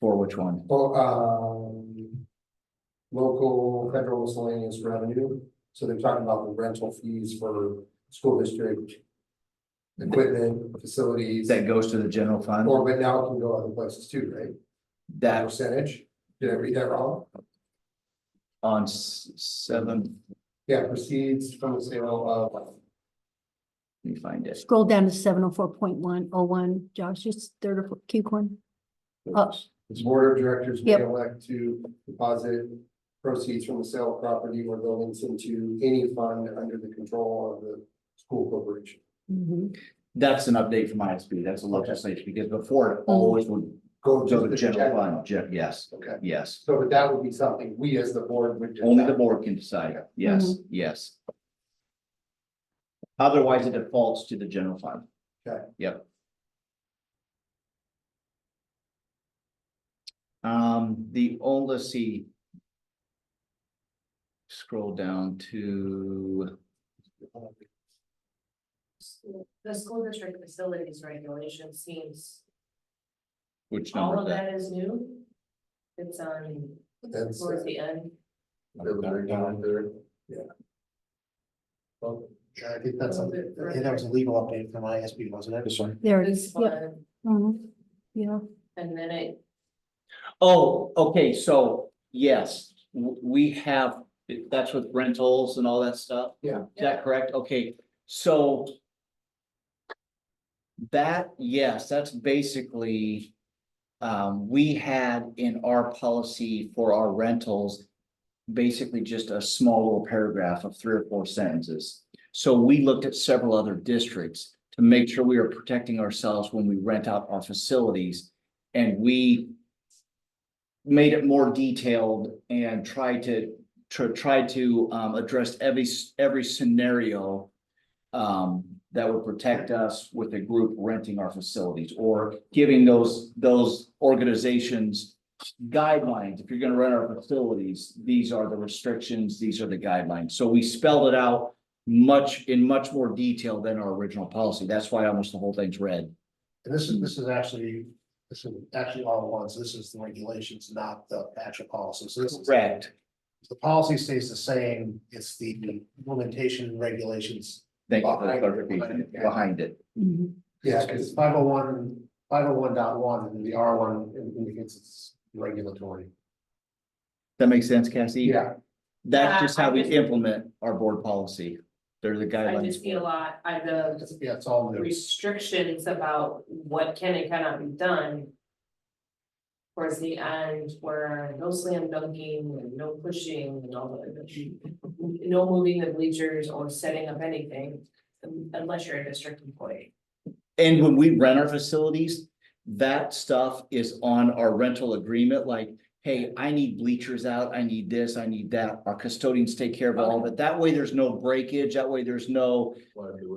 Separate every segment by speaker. Speaker 1: For which one?
Speaker 2: Well, um. Local federal miscellaneous revenue, so they're talking about the rental fees for school district. Equipment, facilities,
Speaker 1: That goes to the general fund?
Speaker 2: or but now it can go other places too, right? That
Speaker 1: That's
Speaker 2: Percentage, did I read that wrong?
Speaker 1: on s- seven,
Speaker 2: Yeah, proceeds from the sale of.
Speaker 1: let me find it.
Speaker 3: Scroll down to seven oh four point one oh one, Josh, just third or fourth- keep one. Oh.
Speaker 2: The board of directors may
Speaker 3: Yep.
Speaker 2: elect to deposit proceeds from the sale of property or buildings into any fund under the control of the school corporation.
Speaker 1: Mm-hmm.
Speaker 3: Mhm.
Speaker 1: That's an update from ISB. That's a legislation because before it always would
Speaker 2: Go
Speaker 1: go to the general
Speaker 2: Mm-hmm.
Speaker 1: fund. Ge- Yes,
Speaker 2: Okay,
Speaker 1: yes.
Speaker 2: so but that would be something we as the board would.
Speaker 1: Only the board can decide. Yes,
Speaker 2: Mm-hmm.
Speaker 1: yes. Otherwise, it defaults to the general fund.
Speaker 2: Okay.
Speaker 1: Yep. Um, the only, let's see. Scroll down to,
Speaker 4: The school district facilities regulation seems,
Speaker 1: which
Speaker 4: all
Speaker 1: number
Speaker 4: of
Speaker 1: is that?
Speaker 4: that is new. It's on,
Speaker 2: That's-
Speaker 4: towards the end,
Speaker 2: Well,
Speaker 5: Yeah, I think that's, a-
Speaker 4: A little bit
Speaker 5: I think that was a legal update from ISB, wasn't it?
Speaker 3: There it
Speaker 4: this
Speaker 3: is, yep.
Speaker 4: one,
Speaker 3: Mhm. Yeah,
Speaker 4: and then it,
Speaker 1: Oh, okay, so, yes, w- we have, that's with rentals and all that stuff?
Speaker 2: Yeah.
Speaker 1: Is that correct? Okay, so. That, yes, that's basically. Um, we had in our policy for our rentals. Basically just a small little paragraph of three or four sentences. So we looked at several other districts to make sure we are protecting ourselves when we rent out our facilities. And we made it more detailed and tried to, to try to um address every, s- every scenario. Um, that would protect us with a group renting our facilities or giving those, those organizations. Guidelines, if you're gonna rent our facilities, these are the restrictions, these are the guidelines, so we spelled it out. Much, in much more detail than our original policy, that's why almost the whole thing's red.
Speaker 5: And this is, this is actually, this is actually all at once. This is the regulations, not the actual policy. So this is.
Speaker 1: Correct.
Speaker 5: The policy stays the same. It's the implementation and regulations.
Speaker 1: Thank you for the clarification behind it.
Speaker 3: Mhm.
Speaker 2: Yeah,
Speaker 5: It's
Speaker 2: because
Speaker 5: five oh one, five oh one dot one, and the R one indicates it's regulatory.
Speaker 1: That makes sense, Cassie?
Speaker 2: yeah,
Speaker 1: That's
Speaker 4: Yeah,
Speaker 1: just how
Speaker 4: I
Speaker 1: we
Speaker 4: just-
Speaker 1: implement our board policy. They're the
Speaker 4: I just
Speaker 1: guidelines.
Speaker 4: see a lot, I the
Speaker 5: It's- Yeah, it's all new.
Speaker 4: restrictions about what can and cannot be done. Towards the end, where no slam dunking, and no pushing, and all that, no moving the bleachers or setting up anything. Unless you're a district employee,
Speaker 1: And when we rent our facilities, that stuff is on our rental agreement, like, hey, I need bleachers out, I need this, I need that. Our custodians take care of all of it. That way, there's no breakage. That way, there's no,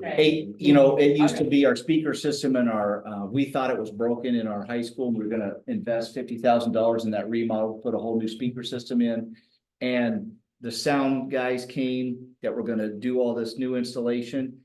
Speaker 1: hey, you know, it used to be our speaker system and our, uh, we thought it was broken in our high school. We were gonna invest fifty thousand dollars in that remodel, put a whole new speaker system in. And the sound guys came that were gonna do all this new installation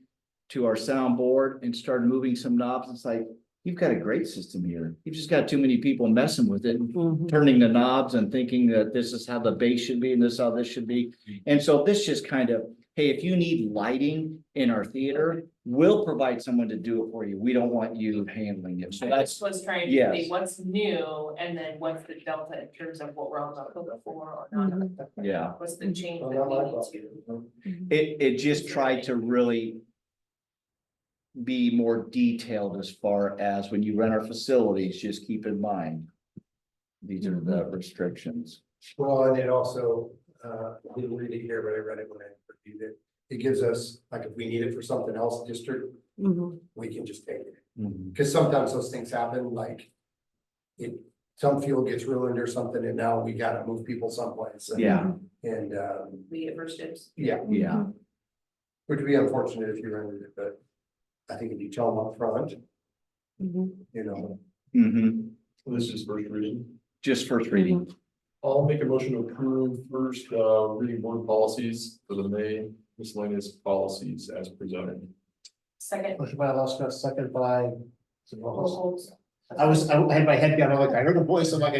Speaker 1: to our soundboard and started moving some knobs. It's like, you've got a great system here. You've just got too many people messing with it, and
Speaker 3: Mhm.
Speaker 1: turning the knobs and thinking that this is how the bass should be and this is how this should be. And so this just kind of, hey, if you need lighting in our theater, we'll provide someone to do it for you. We don't want you handling it. So
Speaker 4: I
Speaker 1: that's
Speaker 4: just was trying
Speaker 1: yes.
Speaker 4: to see what's new, and then what's the delta in terms of what we're on the hook for or not.
Speaker 3: Mhm.
Speaker 1: Yeah,
Speaker 4: What's the change
Speaker 2: Well,
Speaker 4: that
Speaker 2: I like
Speaker 4: we
Speaker 2: that.
Speaker 4: need to?
Speaker 1: it, it just tried to really be more detailed as far as when you rent our facilities, just keep in mind these are the restrictions.
Speaker 2: well, and it also, uh, I didn't read it here, but I read it when I reviewed it. It gives us, like, if we need it for something else district,
Speaker 3: Mhm.
Speaker 2: we can just take it,
Speaker 6: Mm-hmm.
Speaker 2: because sometimes those things happen, like. It, some field gets ruined or something, and now we gotta move people someplace. and-
Speaker 1: Yeah,
Speaker 2: And, um,
Speaker 4: We at first dibs.
Speaker 2: yeah,
Speaker 1: yeah.
Speaker 3: Mm-hmm.
Speaker 2: which would be unfortunate if you rented it, but I think if you tell them upfront,
Speaker 3: Mhm.
Speaker 2: you know.
Speaker 1: Mm-hmm.
Speaker 6: This is first reading.
Speaker 1: Just first reading.
Speaker 6: I'll make a motion to approve first uh reading board policies for the May miscellaneous policies as presented.
Speaker 4: Second.
Speaker 5: Motion by Alaska, second by.
Speaker 4: Holds.
Speaker 5: I was, I had my head down, I'm like, I heard a voice, I'm like,